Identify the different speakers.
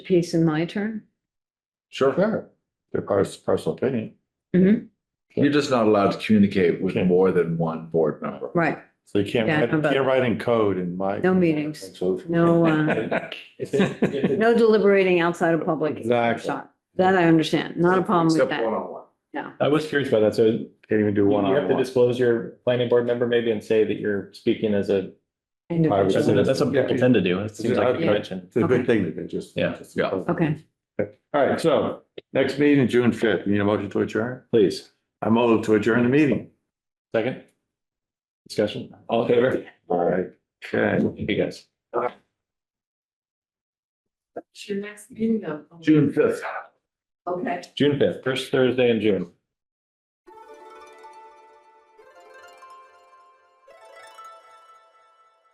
Speaker 1: piece in my turn?
Speaker 2: Sure. Their pers- personal opinion.
Speaker 1: Mhm.
Speaker 3: You're just not allowed to communicate with
Speaker 2: Okay.
Speaker 3: more than one board member.
Speaker 1: Right,
Speaker 2: So you can't,
Speaker 1: Yeah,
Speaker 2: write-
Speaker 1: but-
Speaker 2: can't write in code in my.
Speaker 1: No meetings.
Speaker 2: So if-
Speaker 1: No, uh, no deliberating outside of public.
Speaker 2: Exactly.
Speaker 1: shot. That I understand, not a problem with
Speaker 3: Except
Speaker 1: that.
Speaker 3: one-on-one.
Speaker 4: I was curious about that, so you
Speaker 2: Can't even do one
Speaker 4: have
Speaker 2: on
Speaker 4: to
Speaker 2: one.
Speaker 4: disclose your planning board member maybe and say that you're speaking as a, that's
Speaker 1: Individual.
Speaker 4: that's what people tend to do, it seems like a
Speaker 2: Yeah.
Speaker 4: convention.
Speaker 2: It's a
Speaker 1: Okay.
Speaker 2: good thing that they just.
Speaker 4: Yeah,
Speaker 2: just-
Speaker 3: yeah.
Speaker 1: Okay,
Speaker 2: All right, so next meeting, June fifth, need a motion to adjourn?
Speaker 4: Please,
Speaker 2: I move to adjourn the meeting.
Speaker 4: second? Discussion, all in favor?
Speaker 2: All right. Okay.
Speaker 4: Thank you guys.
Speaker 5: It's your next meeting though.
Speaker 3: June fifth.
Speaker 5: Okay.
Speaker 4: June fifth, first Thursday in June.